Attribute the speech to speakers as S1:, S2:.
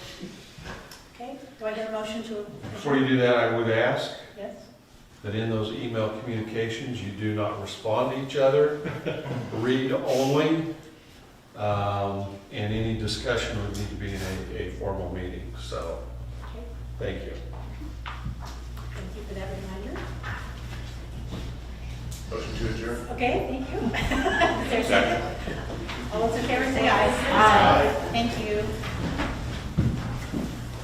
S1: Okay, do I get a motion to?
S2: Before you do that, I would ask
S1: Yes?
S2: that in those email communications, you do not respond to each other, read only, um, and any discussion would need to be in a, a formal meeting, so,
S1: Okay,
S2: thank you.
S1: thank you for that reminder.
S3: Motion to adjourn.
S1: Okay, thank you. Is there a All those in favor say aye.
S3: Aye.
S1: Thank you.